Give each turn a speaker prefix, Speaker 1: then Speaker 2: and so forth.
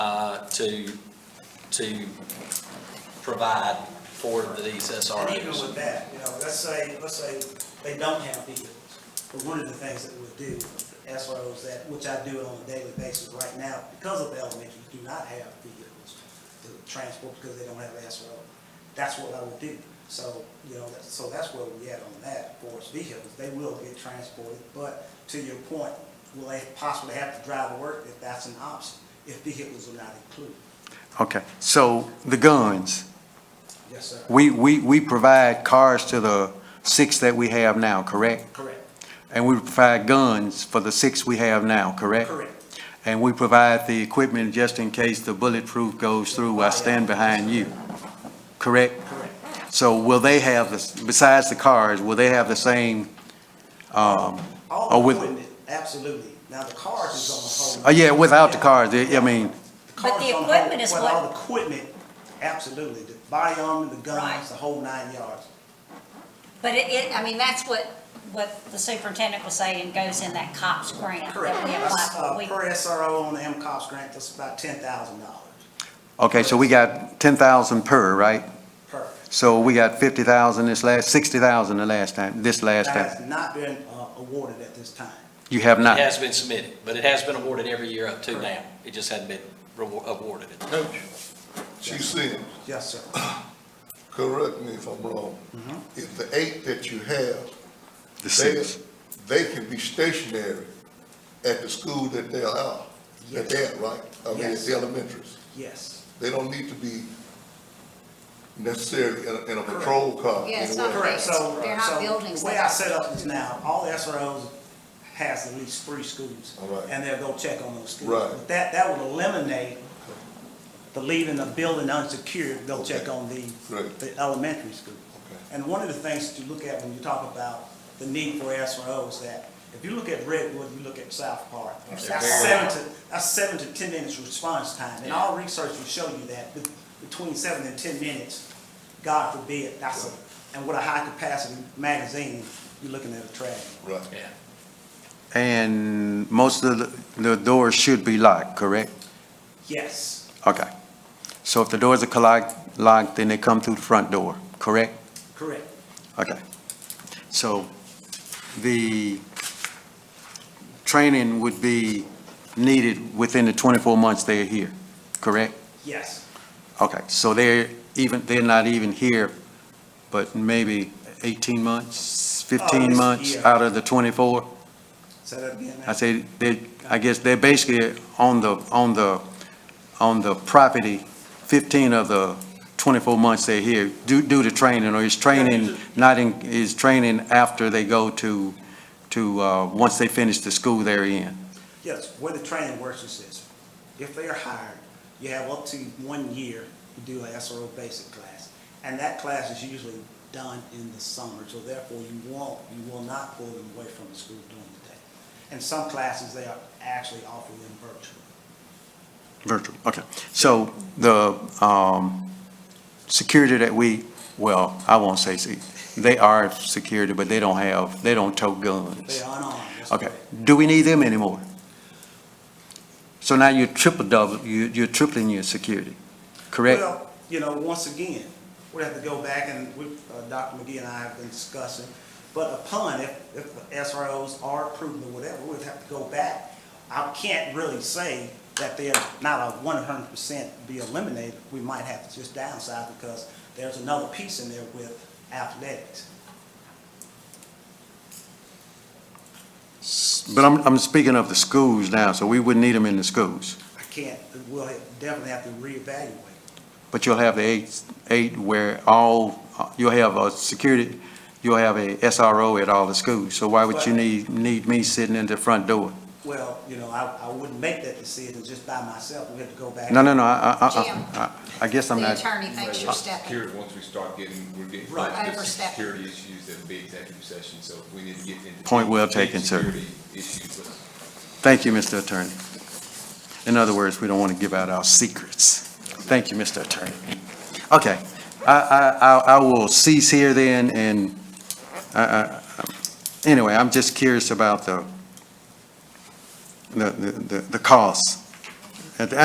Speaker 1: uh, to, to provide for these
Speaker 2: And even
Speaker 1: SROs.
Speaker 2: with that, you know, let's say, let's say they don't have vehicles, but one of the things that we would do, SROs that, which I do on a daily basis right now, because of the elementary, do not have vehicles to transport because they don't have SRO. That's what I would do. So, you know, that's- so that's where we at on that, for us vehicles, they will get transported, but to your point, will they possibly have to drive to work if that's an option, if vehicles are not included?
Speaker 3: Okay, so the guns,
Speaker 2: Yes, sir.
Speaker 3: we, we, we provide cars to the six that we have now, correct?
Speaker 2: Correct,
Speaker 3: And we provide guns for the six we have now, correct?
Speaker 2: correct.
Speaker 3: And we provide the equipment just in case the bulletproof goes through, I stand behind you, correct?
Speaker 2: Correct.
Speaker 3: So will they have, the besides the cars, will they have the same, um,
Speaker 2: All
Speaker 3: Or
Speaker 2: the
Speaker 3: with-
Speaker 2: equipment, absolutely. Now, the cars is on the
Speaker 3: oh,
Speaker 2: whole.
Speaker 3: yeah, without the cars, I I mean,
Speaker 2: cars
Speaker 4: But the
Speaker 2: is on whole-
Speaker 4: equipment is
Speaker 2: well,
Speaker 4: what-
Speaker 2: All the equipment, absolutely. The body armor, the guns,
Speaker 4: Right.
Speaker 2: the whole nine yards.
Speaker 4: But it, it, I mean, that's what, what the superintendent was saying goes in that COPS grant that we apply
Speaker 2: That's,
Speaker 4: for.
Speaker 2: uh,
Speaker 4: We-
Speaker 2: per SRO on the MCOS grant, that's about ten thousand dollars
Speaker 3: okay, so we got ten thousand per, right?
Speaker 2: per.
Speaker 3: So we got fifty thousand this last, sixty thousand the last time, this last
Speaker 2: That
Speaker 3: time.
Speaker 2: has not been, uh, awarded at this time.
Speaker 3: You have
Speaker 1: It
Speaker 3: not.
Speaker 1: has been submitted, but it has been awarded every year up to now. It just hadn't been rewar- awarded.
Speaker 5: Coach, Chief Sims,
Speaker 2: Yes, sir.
Speaker 5: correct me if I'm wrong. If the eight that you have,
Speaker 3: The
Speaker 5: they,
Speaker 3: six.
Speaker 5: they can be stationary at the school that they're at, that they're at, right? I mean, at
Speaker 2: Yes.
Speaker 5: the elementaries.
Speaker 2: Yes.
Speaker 5: They don't need to be necessarily in a, in a patrol car.
Speaker 6: Yeah,
Speaker 5: in a
Speaker 6: it's not
Speaker 5: way.
Speaker 2: Correct, so,
Speaker 6: They're not
Speaker 2: so
Speaker 6: buildings
Speaker 2: the way
Speaker 6: like
Speaker 2: I
Speaker 6: that.
Speaker 2: set up is now, all SROs has at least three schools.
Speaker 5: All right.
Speaker 2: And they'll go check on those schools.
Speaker 5: Right.
Speaker 2: But That, that would eliminate the leaving the building unsecured, go check
Speaker 5: Okay.
Speaker 2: on the,
Speaker 5: Great.
Speaker 2: the elementary school.
Speaker 5: Okay.
Speaker 2: And one of the things that you look at when you talk about the need for SROs, that if you look at Redwood, you look at South Park, that's
Speaker 1: They're
Speaker 2: seven to, that's seven to ten minutes response time. And all research will show you that, be- between seven and ten minutes, God forbid, that's a, and with a high capacity magazine, you're looking at a tragedy.
Speaker 5: Right.
Speaker 1: Yeah.
Speaker 3: And most of the, the doors should be locked, correct?
Speaker 2: Yes,
Speaker 3: Okay. So if the doors are colloc- locked, then they come through the front door, correct?
Speaker 2: correct.
Speaker 3: Okay. So the training would be needed within the 24 months they're here, correct?
Speaker 2: Yes,
Speaker 3: Okay, so they're even, they're not even here, but maybe 18 months,
Speaker 2: Oh, it's
Speaker 3: 15
Speaker 2: a
Speaker 3: months
Speaker 2: year.
Speaker 3: out of the 24?
Speaker 2: say that again, ma'am.
Speaker 3: I say, they, I guess they're basically on the, on the, on the property, 15 of the 24 months they're here, do, do the training, or is training not in, is training after they go to, to, uh, once they finish the school they're in?
Speaker 2: Yes, where the training works is this. If they are hired, you have up to one year to do an SRO basic class. And that class is usually done in the summer, so therefore you won't, you will not pull them away from the school during the day. And some classes, they are actually offering them virtually.
Speaker 3: Virtual, okay. So the, um, security that we, well, I won't say, se- they are security, but they don't have, they don't tow guns.
Speaker 2: They are unarmed. that's
Speaker 3: Okay,
Speaker 2: correct.
Speaker 3: do we need them anymore? So now you're triple double, you- you're tripling your security, correct?
Speaker 2: Well, you know, once again, we have to go back and we, uh, Dr. McGee and I have been discussing, but upon, if, if the SROs are approved or whatever, we'd have to go back. I can't really say that they're not a one hundred percent be eliminated. We might have to just downsize because there's another piece in there with athletics.
Speaker 3: But I'm, I'm speaking of the schools now, so we wouldn't need them in the schools.
Speaker 2: I can't, we'll definitely have to reevaluate.
Speaker 3: But you'll have the eight, eight where all, you'll have a security, you'll have a SRO at all the schools. So why would you need, need me sitting in the front door?
Speaker 2: Well, you know, I, I wouldn't make that decision just by myself. We have to go back.
Speaker 3: No, no, no, I, I- I-
Speaker 6: Jim.
Speaker 3: I, I guess I'm
Speaker 6: The
Speaker 3: not,
Speaker 6: attorney thinks you're stepping.
Speaker 7: Security, once we start getting, we're getting,
Speaker 2: Right.
Speaker 7: there's some
Speaker 6: Overstepping.
Speaker 7: security issues that will be executive session, so we need to get into.
Speaker 3: Point well taken, sir.
Speaker 7: Security issues, but
Speaker 3: thank you, Mr. Attorney. In other words, we don't want to give out our secrets. Thank you, Mr. Attorney. Okay, I, I, I- I will cease here then, and, uh, I- I- anyway, I'm just curious about the, the, the, the cost